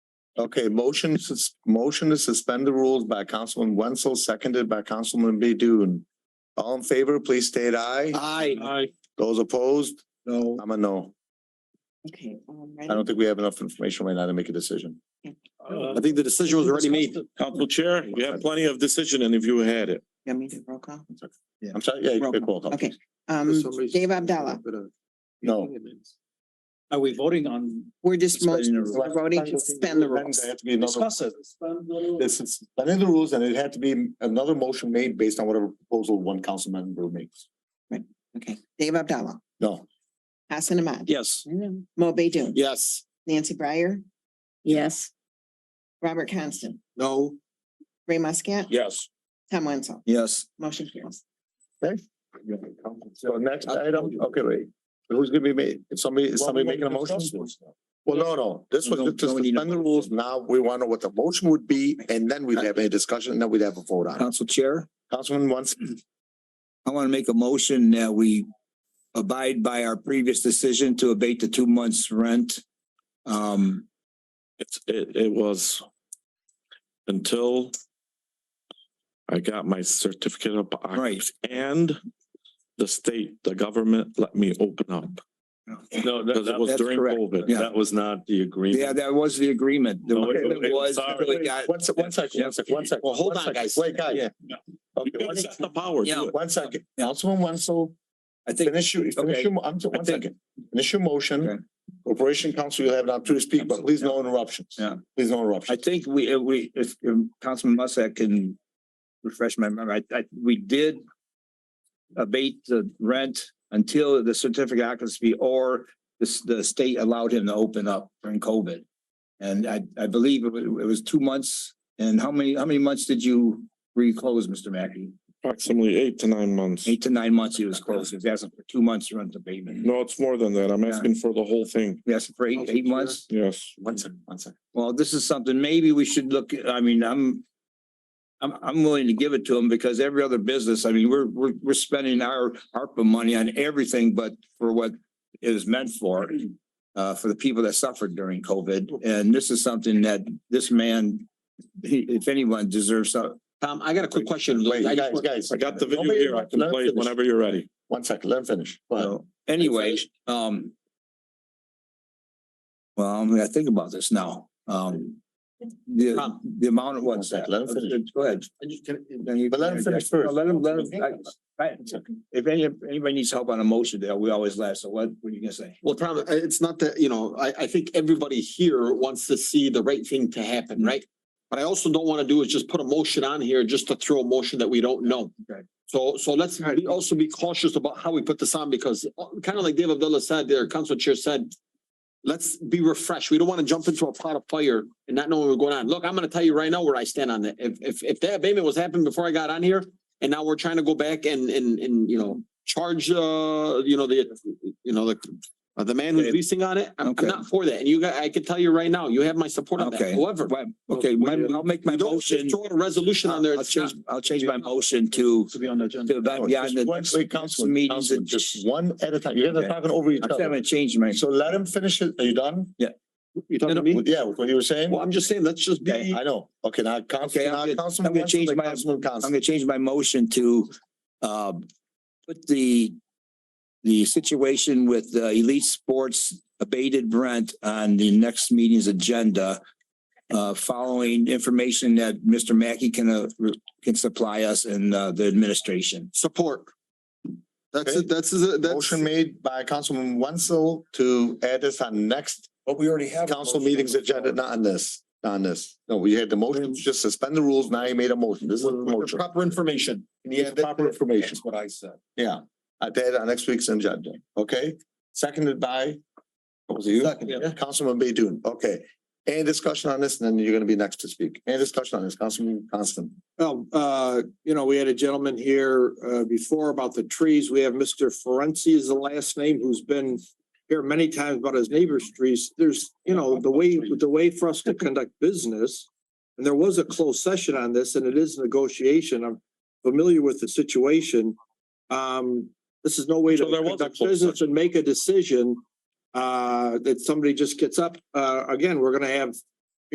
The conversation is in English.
Okay, motion, sus- motion to suspend the rules by Councilman Wenzel, seconded by Councilman Bedun. All in favor, please state aye. Aye. Those opposed, No. I'm a no. Okay. um, I don't think we have enough information right now to make a decision. Uh, I think the decision was already made. Council Chair, you have plenty of decision and if you had it. You want me to roll call? I'm sorry, yeah, Roll quick roll call. Okay, um, Dave Abdallah, No. Are we voting on? we're just Suspending the motion, we're voting to suspend the rules. There had to be another, Discuss it. this is suspending the rules and it had to be another motion made based on whatever proposal one council member makes. Okay, Dave Abdallah, No, Hassan Ahmad. Yes. Mo Baydun, Yes. Nancy Breyer, yes, Robert Constant, No. Ray Muscat, Yes. Tom Wenzel, Yes. motion carries. so next item, okay, wait, who's gonna be made? Is somebody, is somebody making a motion? Well, no, no, this was No, just to no, we need a suspend the rules. Now we want to know what the motion would be and then we'd have a discussion and then we'd have a vote on it. Council Chair, Councilman once, I want to make a motion that we abide by our previous decision to abate the two months' rent. Um, It's, it, it was until I got my certificate of occupancy and the state, the government let me open up. No, Oh, that, Because it that, was That's during correct, COVID. yeah. that was not the yeah, agreement. that was the agreement. The No, it- agreement it- was sorry. until it got- one sec, one sec, one sec, one sec. Well, hold one on, sec. guys. Wait, guys. Yeah. Okay, one It's sec, not the power. Yeah. Do it. one second. Councilman Wenzel, I think, finish your, finish Okay. your, mo- I'm, sorry, one I think- second. Finish your Okay. motion. Corporation Council, you'll have an opportunity to speak, but please no interruptions. Yeah. Please no I interruptions. think we, if we, if um, Councilman Muscat can refresh my memory, I, I, we did abate the rent until the certificate of occupancy or the, s- the state allowed him to open up during COVID. And I, I believe it was, it was two months. And how many, how many months did you reclose, Mr. Mackey? Approximately eight to nine months. Eight to nine months he was closed. He was asking for two months rent abatement. No, it's more than that. I'm Yeah. asking for the whole thing. Yes, for eight, eight months. Yes. One second, one second. Well, this is something maybe we should look, I mean, I'm. I'm, I'm willing to give it to them because every other business, I mean, we're, we're, we're spending our ARPA money on everything but for what it is meant for. Uh, for the people that suffered during COVID. And this is something that this man, he, if anyone deserves, some- Tom, I got a quick question. Wait, I just guys, want- guys. I got the video Nobody here. I interrupt- can let him play it finish. whenever you're ready. One second, let him finish. Go ahead. So anyway, um. Well, I'm gonna think about this now. Um, the, Tom. the amount of what's that? Let him finish. Go ahead. Then you- But let him finish No, first. Let him, let him. I- I- It's okay. If any, if anybody needs help on a motion there, we always last. So what, what are you gonna say? Well, Tom, I- it's not that, you know, I, I think everybody here wants to see the right thing to happen, right? But I also don't want to do is just put a motion on here just to throw a motion that we don't know. Okay. So, so let's be- also be cautious about how we put this on because kind of like Dave Abdullah said there, Council Chair said, let's be refreshed. We don't want to jump into a pot of fire and not know what we're going on. Look, I'm going to tell you right now where I stand on that. If, if, if that abatement was happening before I got on here and now we're trying to go back and, and, and, you know, charge, uh, you know, the, you know, the, uh, the man who's Okay. leasing on it, I'm, Okay. I'm not for that. And you got, I can tell you right now, you have my support on that. Okay. However, Right, Okay, my- I'll make my you uh, don't just motion. throw a resolution Uh, on there. I'll It's not- change, I'll change my motion to, To be on the agenda. to about No, beyond Oh, just the. one- Wait, Councilman, meetings Councilman, and- just one at a time. You guys are Okay. talking over each I'm other. gonna change my, So let him finish it. Are you done? You talking to me? Yeah, with what you were saying? Well, I'm just saying, let's just be, I know. Okay, now Okay, Councilman, I'm now gonna- Councilman I'm gonna Wenzel, change my- Councilman I'm Constant. gonna change my motion to, uh, put the, the situation with the Elite Sports abated rent on the next meeting's agenda, uh, following information that Mr. Mackey can, uh, can supply us and, uh, the administration. support. That's Okay. it, that's, it, that's, Motion made by Councilman Wenzel to add this on next But we already have. council meetings agenda, not on this, not on this. No, we had the motion, to just suspend the rules. Now you made a motion. This is a motion. Proper information. Yeah, that- Proper information. that's what I said. Yeah, I did on next week's agenda. Okay, seconded by, what was it, you? yeah. Councilman Baydun. Okay. Any discussion on this? And then you're gonna be next to speak. Any discussion on this, Councilman Constant? Well, uh, you know, we had a gentleman here, uh, before about the trees. We have Mr. Ferenczi is the last name who's been here many times about his neighbor's trees. There's, you know, the way, the way for us to conduct business. And there was a closed session on this and it is negotiation. I'm familiar with the situation. Um, this is no way to So there was a conduct closed business and make a decision. Uh, that somebody just gets up. Uh, again, we're gonna have